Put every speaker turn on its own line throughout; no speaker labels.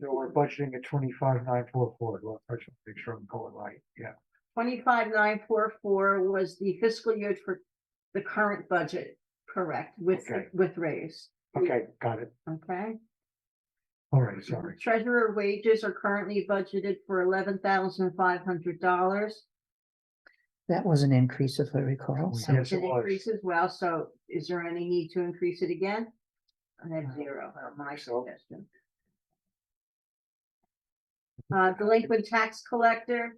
So we're budgeting at twenty-five, nine, four, four, well, I just wanna make sure I'm going right, yeah.
Twenty-five nine four four was the fiscal year for the current budget, correct, with,
Okay.
with raise,
Okay, got it,
okay?
all right, sorry,
Treasurer wages are currently budgeted for eleven thousand five hundred dollars.
That was an increase, if I recall.
Yes,
so-
it was.
Increase as well, so is there any need to increase it again? I have zero, my
So-
suggestion. Uh, delinquent tax collector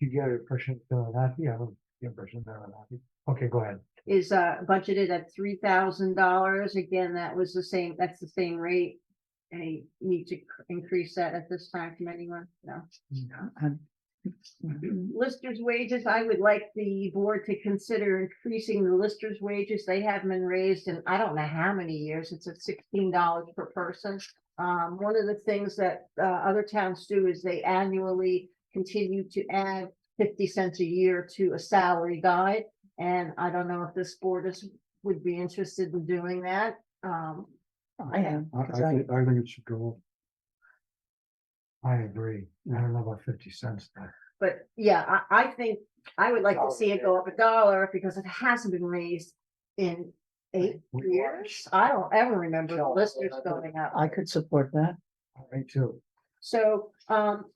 you get an impression uh, that I'm happy, I don't get an impression that I'm happy, okay, go ahead.
is, uh, budgeted at three thousand dollars, again, that was the same, that's the same rate. Any need to increase that at this time from anyone? No?
Um,
Listers wages, I would like the board to consider increasing the listers wages. They have been raised in, I don't know how many years. It's at sixteen dollars per person. Um, one of the things that, uh, other towns do is they annually continue to add fifty cents a year to a salary guide. And I don't know if this board is, would be interested in doing that. Um,
I am,
I, I
'cause I-
think, I think it should go. up. I agree, I don't know about fifty cents, but
But yeah, I, I think I would like to see it go up a dollar because it hasn't been raised in eight
We watched-
years. I don't ever remember the
Sure,
listers
I don't-
going up.
I could support that.
I too,
So, um,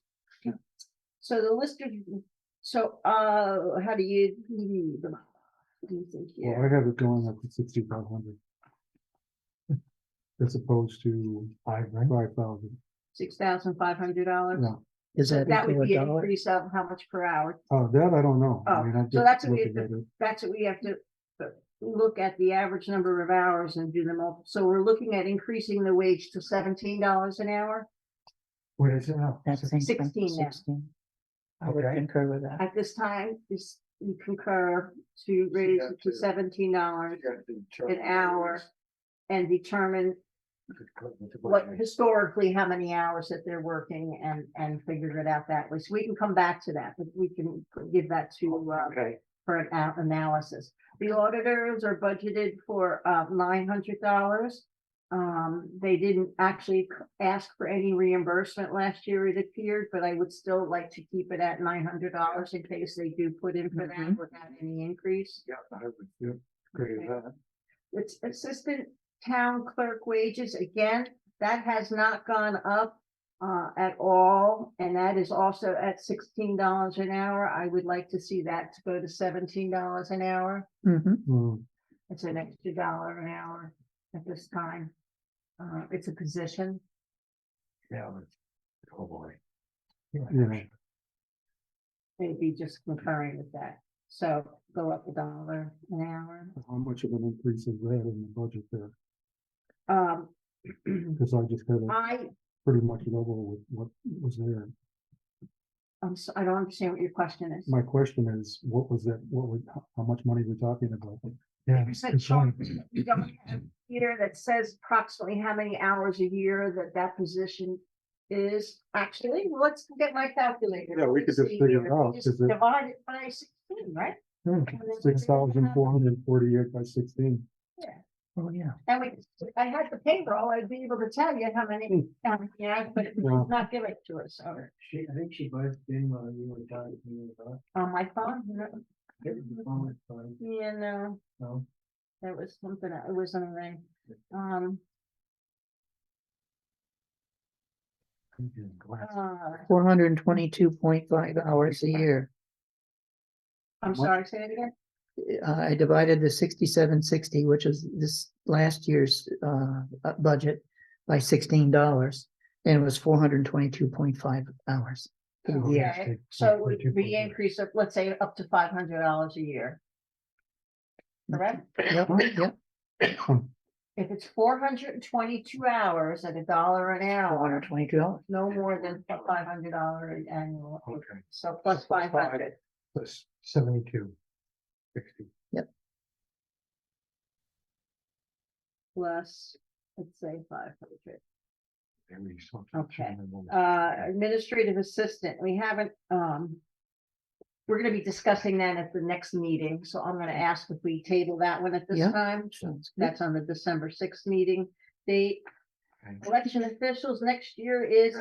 so the listers, so, uh, how do you? do you think
well,
you-
I have it going up to sixty-five hundred. As opposed to five, five thousand,
Six thousand five hundred dollars?
no,
Is that
That
equal
would
a
be an
dollar?
increase of how much per hour?
oh, that I don't know. I
Oh,
mean, I'm
so
just
that's what we-
looking at it.
that's what we have to uh, look at the average number of hours and do them all. So we're looking at increasing the wage to seventeen dollars an hour.
What is it now?
That's
Six-
16 now.
I would
Okay.
concur with that.
At this time, is you concur to raise it to
Exactly.
seventeen dollars an
an
hour and determine what historically, how many hours that they're working and, and figure it out that way. So we can come back to that, but we can give that to, uh,
Okay,
for an a- analysis. The auditors are budgeted for uh nine hundred dollars. Um, they didn't actually c- ask for any reimbursement last year, it appeared, but I would still like to keep it at nine hundred dollars in case they do put in for that
Mhm.
without any increase.
yeah, I would, yeah, agree with
Okay.
that.
It's assistant town clerk wages, again, that has not gone up uh, at all, and that is also at sixteen dollars an hour. I would like to see that to go to seventeen dollars an hour.
Mhm.
Mm,
It's an extra dollar an hour at this time. Uh, it's a position.
yeah, but- oh boy. Yeah,
They'd be just concurring with that. So go up a dollar an hour.
how much of an increase is there in the budget there?
Um,
Cause I just kind of
I,
pretty much level with what was there.
I'm, s- I don't understand what your question is.
My question is, what was that, what would, how- how much money we're talking about? Yeah.
You said Sean, you don't have Here that says approximately how many hours a year that that position is. Actually, let's get my calculator.
Yeah, we could just
See,
figure it out,
just
'cause it-
Divide it by sixteen, right?
Hmm, Six thousand four hundred and forty-eight by sixteen.
Oh, yeah.
And we, if I had the payroll, I'd be able to tell you how many, how many, hours, but it's
Hmm. Yeah.
not give it to us, or
She, I think she buys in while you were talking.
on my phone, no,
No.
yeah, no, that was something, it wasn't a thing. Um, uh,
Four hundred and twenty-two point five hours a year.
I'm
What?
sorry, say it again,
Uh, I divided the sixty-seven sixty, which is this last year's, uh, uh, budget by sixteen dollars. And it was four hundred and twenty-two point five hours.
Oh,
Yeah.
yes,
okay,
they-
so
they
we,
do put
we
that.
increase of, let's say, up to five hundred dollars a year. Correct,
Yep, yep,
if it's four hundred and twenty-two hours at a dollar an
four hundred
hour,
and twenty-two dollars.
no more than five hundred dollar annual,
Okay,
so plus
Five.
five hundred.
plus seventy-two. Sixty.
plus, let's say five hundred.
Maybe something.
Okay.
minimal.
Uh, administrative assistant, we haven't, um. We're gonna be discussing that at the next meeting, so I'm gonna ask if we table that one at this
Yeah.
time.
Sounds good.
That's on the December sixth meeting. The
Okay.
election officials next year is